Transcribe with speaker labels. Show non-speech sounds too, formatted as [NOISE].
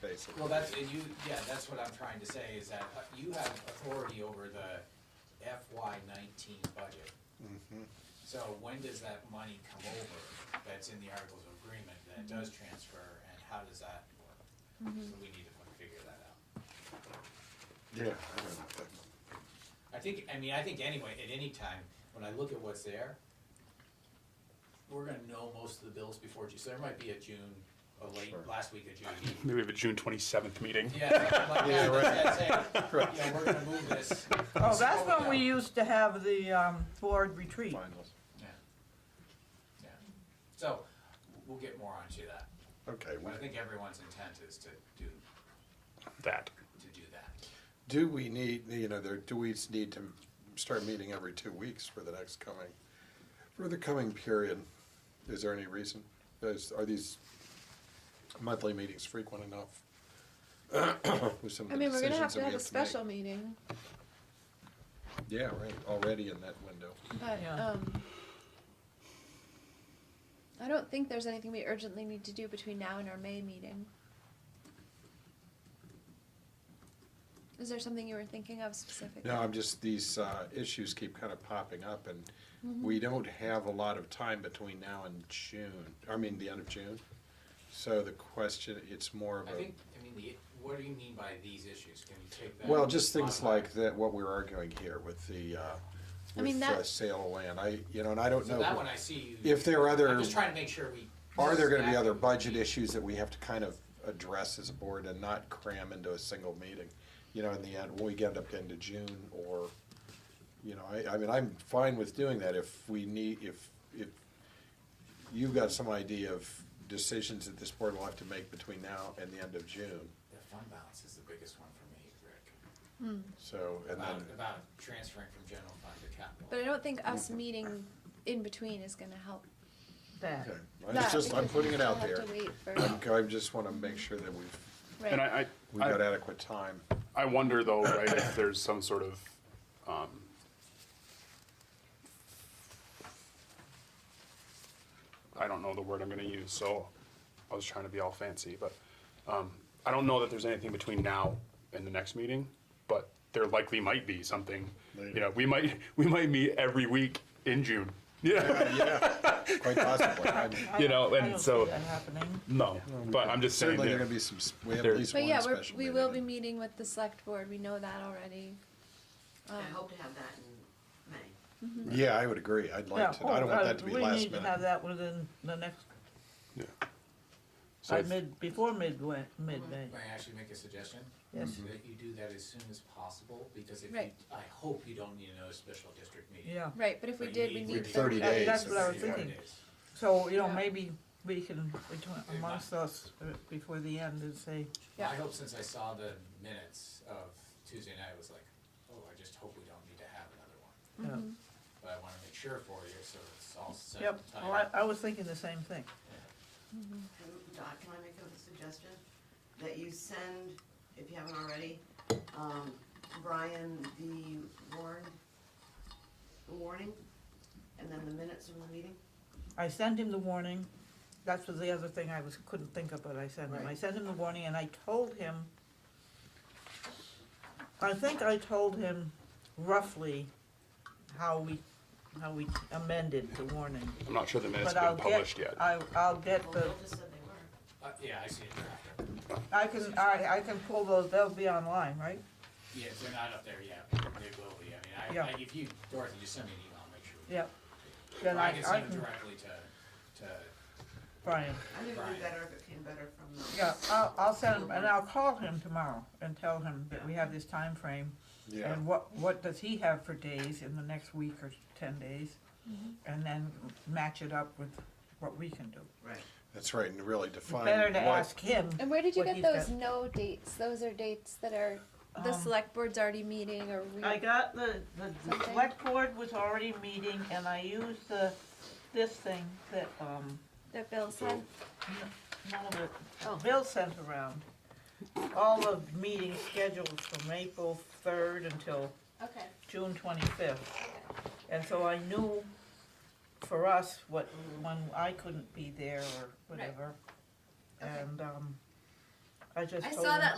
Speaker 1: basically.
Speaker 2: Well, that's, and you, yeah, that's what I'm trying to say, is that uh, you have authority over the FY nineteen budget.
Speaker 1: Mm-hmm.
Speaker 2: So when does that money come over that's in the Articles of Agreement that does transfer, and how does that work? So we need to figure that out.
Speaker 1: Yeah, I don't know.
Speaker 2: I think, I mean, I think anyway, at any time, when I look at what's there, we're gonna know most of the bills before June, so there might be a June, a late,
Speaker 1: Sure.
Speaker 2: last week of June.
Speaker 3: [LAUGHS] Maybe we have a June twenty-seventh meeting.
Speaker 2: Yeah, like, yeah, that's, that's it, yeah, we're gonna move this.
Speaker 4: Oh, that's
Speaker 2: slow it
Speaker 4: when we
Speaker 2: down.
Speaker 4: used to have the um, board retreat.
Speaker 1: Finals.
Speaker 2: Yeah. Yeah. So, we'll get more onto that,
Speaker 1: Okay,
Speaker 2: but I
Speaker 1: well,
Speaker 2: think everyone's intent is to do,
Speaker 3: That.
Speaker 2: to do that.
Speaker 1: do we need, you know, there, do we s- need to start meeting every two weeks for the next coming, for the coming period? Is there any reason? Is, are these monthly meetings frequent enough? [COUGHS] With some of
Speaker 5: I
Speaker 1: the
Speaker 5: mean, we're gonna
Speaker 1: decisions
Speaker 5: have to
Speaker 1: that we
Speaker 5: have a
Speaker 1: to make?
Speaker 5: special meeting,
Speaker 1: Yeah, right, already in that window.
Speaker 5: but,
Speaker 4: Yeah.
Speaker 5: um, I don't think there's anything we urgently need to do between now and our May meeting. Is there something you were thinking of specifically?
Speaker 1: No, I'm just, these uh, issues keep kind of popping up, and
Speaker 5: Mm-hmm.
Speaker 1: we don't have a lot of time between now and June, I mean, the end of June. So the question, it's more of
Speaker 2: I think,
Speaker 1: a,
Speaker 2: I mean, the, what do you mean by these issues, can you take that?
Speaker 1: well, just things
Speaker 2: online?
Speaker 1: like that, what we're arguing here with the, uh,
Speaker 5: I mean,
Speaker 1: with
Speaker 5: that-
Speaker 1: uh, sale of land, I, you know, and I don't
Speaker 2: So that
Speaker 1: know.
Speaker 2: one I see you.
Speaker 1: If there are other,
Speaker 2: I'm just trying to make sure we.
Speaker 1: are there gonna be other budget issues that we have to kind of address as a board and not cram into a single meeting? You know, in the end, when we get up into June or You know, I, I mean, I'm fine with doing that if we need, if, if you've got some idea of decisions that this board will have to make between now and the end of June,
Speaker 2: The fund balance is the biggest one for me, Rick,
Speaker 1: so, and
Speaker 2: about,
Speaker 1: then,
Speaker 2: about transferring from general fund to capital.
Speaker 5: But I don't think us meeting in between is gonna help.
Speaker 4: That.
Speaker 1: okay. It's
Speaker 5: that,
Speaker 1: just, I'm
Speaker 5: because
Speaker 1: putting it
Speaker 5: we'll
Speaker 1: out
Speaker 5: have to
Speaker 1: there.
Speaker 5: wait for-
Speaker 1: I'm, I just wanna make sure that we've,
Speaker 5: right.
Speaker 3: And I,
Speaker 1: we've
Speaker 3: I,
Speaker 1: got
Speaker 3: I,
Speaker 1: adequate time.
Speaker 3: I wonder though, right, if there's some sort of, um, I don't know the word I'm gonna use, so I was trying to be all fancy, but, um, I don't know that there's anything between now and the next meeting, but there likely might be something. You
Speaker 1: Later.
Speaker 3: know, we might, [LAUGHS] we might meet every week in June, [LAUGHS] yeah,
Speaker 1: Quite possibly. I'm
Speaker 3: you know,
Speaker 4: I
Speaker 3: and
Speaker 4: don't
Speaker 3: so,
Speaker 4: see that happening.
Speaker 3: no, but I'm just saying
Speaker 1: Certainly
Speaker 3: that.
Speaker 1: gonna be some, s- we have
Speaker 3: There-
Speaker 1: at least
Speaker 5: But
Speaker 1: one
Speaker 5: yeah,
Speaker 1: special
Speaker 5: we're, we will be
Speaker 1: meeting.
Speaker 5: meeting with the select board, we know that already.
Speaker 6: I
Speaker 5: Um,
Speaker 6: hope to have that in May.
Speaker 1: Yeah, I would agree. I'd
Speaker 4: Yeah,
Speaker 1: like to, I don't
Speaker 4: oh,
Speaker 1: want
Speaker 4: uh,
Speaker 1: that to be last
Speaker 4: We need to have
Speaker 1: minute.
Speaker 4: that within the next,
Speaker 3: Yeah. So
Speaker 4: by
Speaker 3: I th-
Speaker 4: mid, before midway, midday.
Speaker 2: May I actually make a suggestion?
Speaker 4: Yes.
Speaker 2: That you do that as soon as possible, because if you,
Speaker 5: Right.
Speaker 2: I hope you don't need another special district meeting.
Speaker 4: Yeah,
Speaker 5: Right, but if we
Speaker 2: But
Speaker 5: did, we
Speaker 2: you
Speaker 5: need
Speaker 1: need 30
Speaker 5: thirty
Speaker 1: days.
Speaker 4: That's what I was
Speaker 2: Thirty
Speaker 4: thinking.
Speaker 2: days.
Speaker 4: so, you know,
Speaker 5: Yeah.
Speaker 4: maybe we can, between- amongst us, uh, before the end and say,
Speaker 5: Yeah.
Speaker 2: I hope since I saw the minutes of Tuesday night, I was like, oh, I just hope we don't need to have another one.
Speaker 4: you know,
Speaker 2: But I wanna make sure for you, so it's all set.
Speaker 4: yep,
Speaker 2: and
Speaker 4: well,
Speaker 2: tight.
Speaker 4: I, I was thinking the same thing.
Speaker 6: Can- Doc, can I make a suggestion? That you send, if you haven't already, um, Brian the warn, the warning, and then the minutes from the meeting?
Speaker 4: I sent him the warning, that's was the other thing I was, couldn't think of, but I sent him, I
Speaker 6: Right.
Speaker 4: sent him the warning and I told him, I think I told him roughly how we, how we amended the warning,
Speaker 3: I'm not sure the minutes
Speaker 4: but
Speaker 3: have
Speaker 4: I'll
Speaker 3: been
Speaker 4: get.
Speaker 3: published yet.
Speaker 4: I, I'll get
Speaker 6: Well,
Speaker 4: the,
Speaker 6: Bill just said they were.
Speaker 2: Uh, yeah, I see it after.
Speaker 4: I can, I, I can pull those, they'll be online, right?
Speaker 2: Yeah, if they're not up there yet, they will be, I mean, I,
Speaker 4: Yeah.
Speaker 2: I- if you, Dorothy, just send me an email, I'll make sure.
Speaker 4: Yep. Then
Speaker 2: Or
Speaker 4: I,
Speaker 2: I can
Speaker 4: I
Speaker 2: send it
Speaker 4: can,
Speaker 2: directly to, to
Speaker 4: Brian,
Speaker 6: I think it'd
Speaker 2: Brian.
Speaker 6: be better if it came better from the.
Speaker 4: yeah, I'll, I'll send him, and I'll call him tomorrow and tell him that we have this time frame.
Speaker 1: Yeah,
Speaker 4: And what, what does he have for days in the next week or ten days?
Speaker 5: Mm-hmm.
Speaker 4: And then match it up with what we can do.
Speaker 6: Right.
Speaker 1: that's right, and really define
Speaker 4: Better to
Speaker 1: what-
Speaker 4: ask him.
Speaker 5: And where did you
Speaker 4: what
Speaker 5: get
Speaker 4: he's
Speaker 5: those
Speaker 4: got.
Speaker 5: no dates? Those are dates that are the
Speaker 4: Um,
Speaker 5: select board's already meeting or we.
Speaker 4: I got the, the the
Speaker 5: Something.
Speaker 4: select board was already meeting and I used the, this thing that, um,
Speaker 5: That Bill sent.
Speaker 4: no,
Speaker 5: Oh.
Speaker 4: that Bill sent around. All the meeting schedules from April third until
Speaker 5: Okay.
Speaker 4: June twenty-fifth. And so I knew for us what, when I couldn't be there or whatever.
Speaker 5: Okay.
Speaker 4: And, um,
Speaker 7: I just
Speaker 4: I
Speaker 7: told
Speaker 4: saw
Speaker 7: him.
Speaker 4: that